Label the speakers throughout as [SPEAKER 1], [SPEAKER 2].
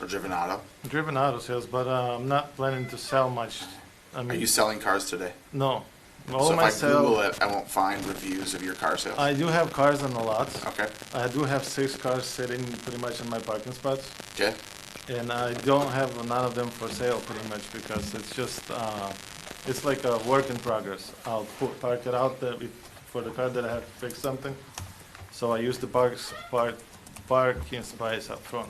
[SPEAKER 1] or driven auto?
[SPEAKER 2] Driven auto sales, but uh, I'm not planning to sell much. I
[SPEAKER 1] Are
[SPEAKER 2] mean,
[SPEAKER 1] you selling cars today?
[SPEAKER 2] no. All
[SPEAKER 1] so if
[SPEAKER 2] my
[SPEAKER 1] I
[SPEAKER 2] sale-
[SPEAKER 1] Google it, I won't find reviews of your car sales.
[SPEAKER 2] I do have cars on the lots.
[SPEAKER 1] okay.
[SPEAKER 2] I do have six cars sitting pretty much in my parking spots,
[SPEAKER 1] Okay.
[SPEAKER 2] and I don't have none of them for sale pretty much because it's just uh, it's like a work in progress. I'll put, park it out there with- for the car that I have to fix something, so I use the parks park parking space up front.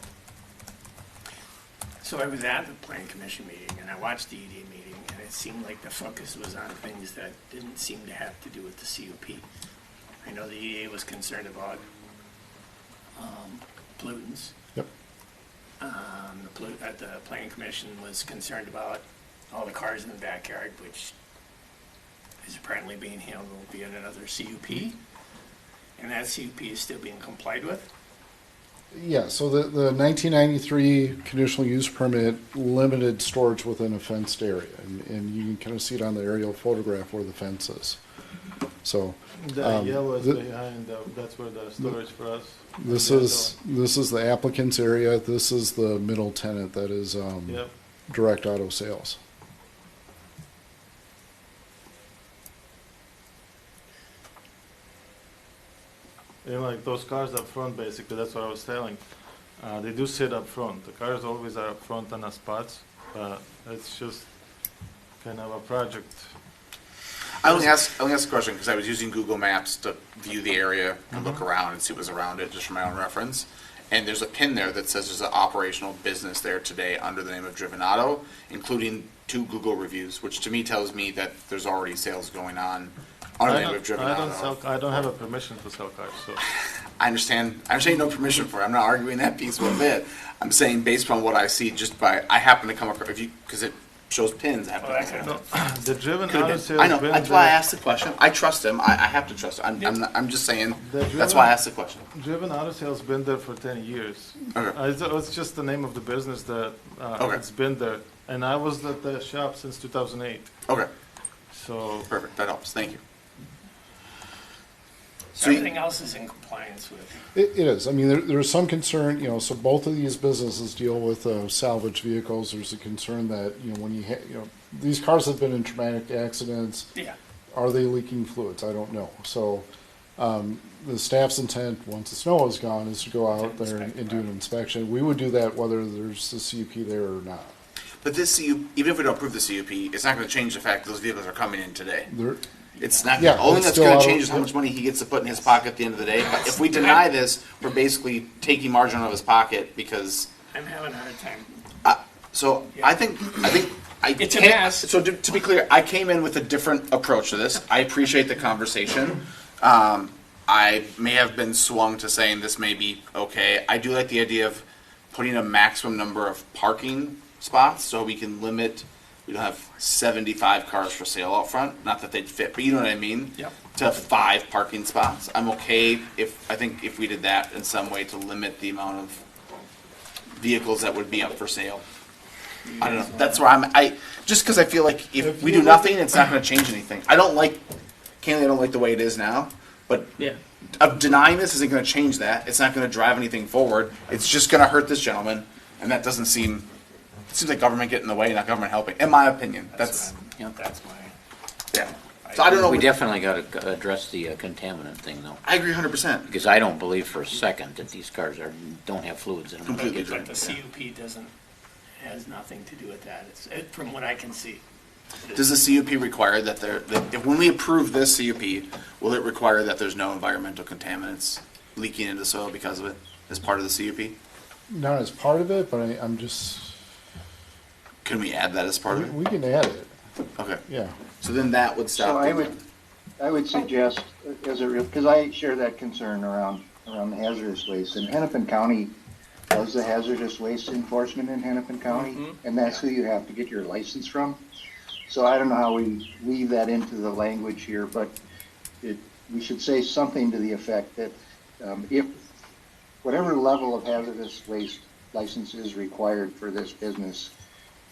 [SPEAKER 3] So I was at the plan commission meeting and I watched the ED meeting and it seemed like the focus was on things that didn't seem to have to do with the CUP. I know the EDA was concerned about, um, pollutants.
[SPEAKER 4] Yep.
[SPEAKER 3] Um, the pollu, uh, the planning commission was concerned about all the cars in the backyard, which is apparently being handled via another CUP. And that CUP is still being complied with.
[SPEAKER 4] Yeah, so the, the 1993 conditional use permit limited storage within a fenced area, and, and you can kind of see it on the aerial photograph where the fence is. So
[SPEAKER 2] The
[SPEAKER 4] Um,
[SPEAKER 2] yellow is
[SPEAKER 4] the-
[SPEAKER 2] behind. The, that's where the storage for us.
[SPEAKER 4] this
[SPEAKER 2] Yeah,
[SPEAKER 4] is this is the applicant's area. This is the middle tenant that is um,
[SPEAKER 2] the- Yep.
[SPEAKER 4] direct auto sales.
[SPEAKER 2] And like those cars up front, basically, that's what I was telling. Uh, they do sit up front. The cars always are up front on the spots, but it's just kind of a project.
[SPEAKER 1] I only asked I only asked a question because I was using Google Maps to view the area and
[SPEAKER 2] Mm-hmm.
[SPEAKER 1] look around and see what was around it just for my own reference. And there's a pin there that says there's an operational business there today under the name of Driven Auto, including two Google reviews, which to me tells me that there's already sales going on under the
[SPEAKER 2] I
[SPEAKER 1] name of
[SPEAKER 2] don't,
[SPEAKER 1] Driven
[SPEAKER 2] I
[SPEAKER 1] Auto.
[SPEAKER 2] don't sell. I don't have a permission to sell cars, so
[SPEAKER 1] I understand. I'm saying no permission for. It. I'm not arguing that piece one bit. I'm saying based upon what I see, just by I happen to come across if you because it shows pins. I happen to come
[SPEAKER 3] Well, that could have
[SPEAKER 1] across-
[SPEAKER 2] the driven
[SPEAKER 1] Could've
[SPEAKER 2] auto
[SPEAKER 1] been.
[SPEAKER 2] sales.
[SPEAKER 1] I know.
[SPEAKER 2] been
[SPEAKER 1] That's why I
[SPEAKER 2] there-
[SPEAKER 1] asked the question. I trust him. I, I have to trust him. I'm, I'm, not, I'm just saying.
[SPEAKER 2] The
[SPEAKER 1] That's
[SPEAKER 2] driven-
[SPEAKER 1] why I asked the question.
[SPEAKER 2] Driven Auto Sales been there for ten years.
[SPEAKER 1] Okay.
[SPEAKER 2] Uh, It's, it's just the name of the business that uh,
[SPEAKER 1] Okay.
[SPEAKER 2] it's been there, and I was at the shop since two thousand eight.
[SPEAKER 1] Okay.
[SPEAKER 2] So
[SPEAKER 1] Perfect. That helps. Thank you. So you-
[SPEAKER 3] Everything else is in compliance with.
[SPEAKER 4] It, it is. I mean, there, there's some concern, you know, so both of these businesses deal with uh, salvage vehicles. There's a concern that, you know, when you, ha- you know, these cars have been in traumatic accidents.
[SPEAKER 3] Yeah.
[SPEAKER 4] Are they leaking fluids? I don't know. So um, the staff's intent, once the snow is gone, is to go out there and, and do an inspection. We would do that whether there's a CUP there or not.
[SPEAKER 1] but this CU, even if we don't approve the CUP, it's not going to change the fact that those vehicles are coming in today.
[SPEAKER 4] There,
[SPEAKER 1] It's not.
[SPEAKER 4] Yeah,
[SPEAKER 1] the only
[SPEAKER 4] it's
[SPEAKER 1] that's
[SPEAKER 4] still
[SPEAKER 1] going
[SPEAKER 4] out
[SPEAKER 1] to
[SPEAKER 4] of-
[SPEAKER 1] change is how much money he gets to put in his pocket at the end of the day. But if we deny this, we're basically taking margin out of his pocket because.
[SPEAKER 3] I'm having a hard time.
[SPEAKER 1] So I think I think I
[SPEAKER 3] It's a
[SPEAKER 1] came-
[SPEAKER 3] mess.
[SPEAKER 1] So to, to be clear, I came in with a different approach to this. I appreciate the conversation. Um, I may have been swung to saying this may be okay. I do like the idea of putting a maximum number of parking spots so we can limit. We don't have seventy-five cars for sale out front. Not that they'd fit, but you know what I mean.
[SPEAKER 3] Yep.
[SPEAKER 1] To five parking spots, I'm okay if I think if we did that in some way to limit the amount of vehicles that would be up for sale. I don't know. That's where I'm. I just because I feel like if,
[SPEAKER 2] If
[SPEAKER 1] we
[SPEAKER 2] you
[SPEAKER 1] do
[SPEAKER 2] look
[SPEAKER 1] nothing, it's not going to change anything. I don't like. Candidly, I don't like the way it is now. But
[SPEAKER 3] Yeah.
[SPEAKER 1] of denying this isn't going to change that. It's not going to drive anything forward. It's just going to hurt this gentleman, and that doesn't seem. It seems like government getting in the way, not government helping. In my opinion, that's,
[SPEAKER 3] what I'm- That's my.
[SPEAKER 1] yeah. So I don't know.
[SPEAKER 5] We
[SPEAKER 1] what-
[SPEAKER 5] definitely got to address the uh, contaminant thing though,
[SPEAKER 1] I agree, hundred percent.
[SPEAKER 5] because I don't believe for a second that these cars are, don't have fluids in them.
[SPEAKER 1] Completely
[SPEAKER 5] Like,
[SPEAKER 1] different.
[SPEAKER 3] But the CUP doesn't, has nothing to do with that, it's, it- from what I can see.
[SPEAKER 1] Does the CUP require that there? That if, when we approve this CUP, will it require that there's no environmental contaminants leaking into the soil because of it as part of the CUP?
[SPEAKER 4] not as part of it, but I, I'm just,
[SPEAKER 1] Can we add that as part
[SPEAKER 4] we,
[SPEAKER 1] of it?
[SPEAKER 4] we can add it.
[SPEAKER 1] Okay.
[SPEAKER 4] Yeah.
[SPEAKER 1] So then that would stop.
[SPEAKER 6] So I
[SPEAKER 1] the-
[SPEAKER 6] would, I would suggest, uh, as a real, because I share that concern around, around the hazardous waste, and Hennepin County does the hazardous waste enforcement in Hennepin County, and that's who you have to get your license from. So I don't know how we weave that into the language here, but it, we should say something to the effect that, um, if, whatever level of hazardous waste license is required for this business,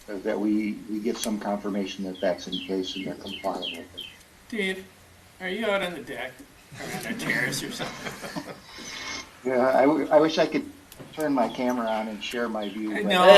[SPEAKER 6] uh, that we, we get some confirmation that that's in place and they're compliant with it.
[SPEAKER 3] Dave, are you out on the deck, or on a terrace or something?
[SPEAKER 6] Yeah, I, w- I wish I could turn my camera on and share my view. but-
[SPEAKER 3] No,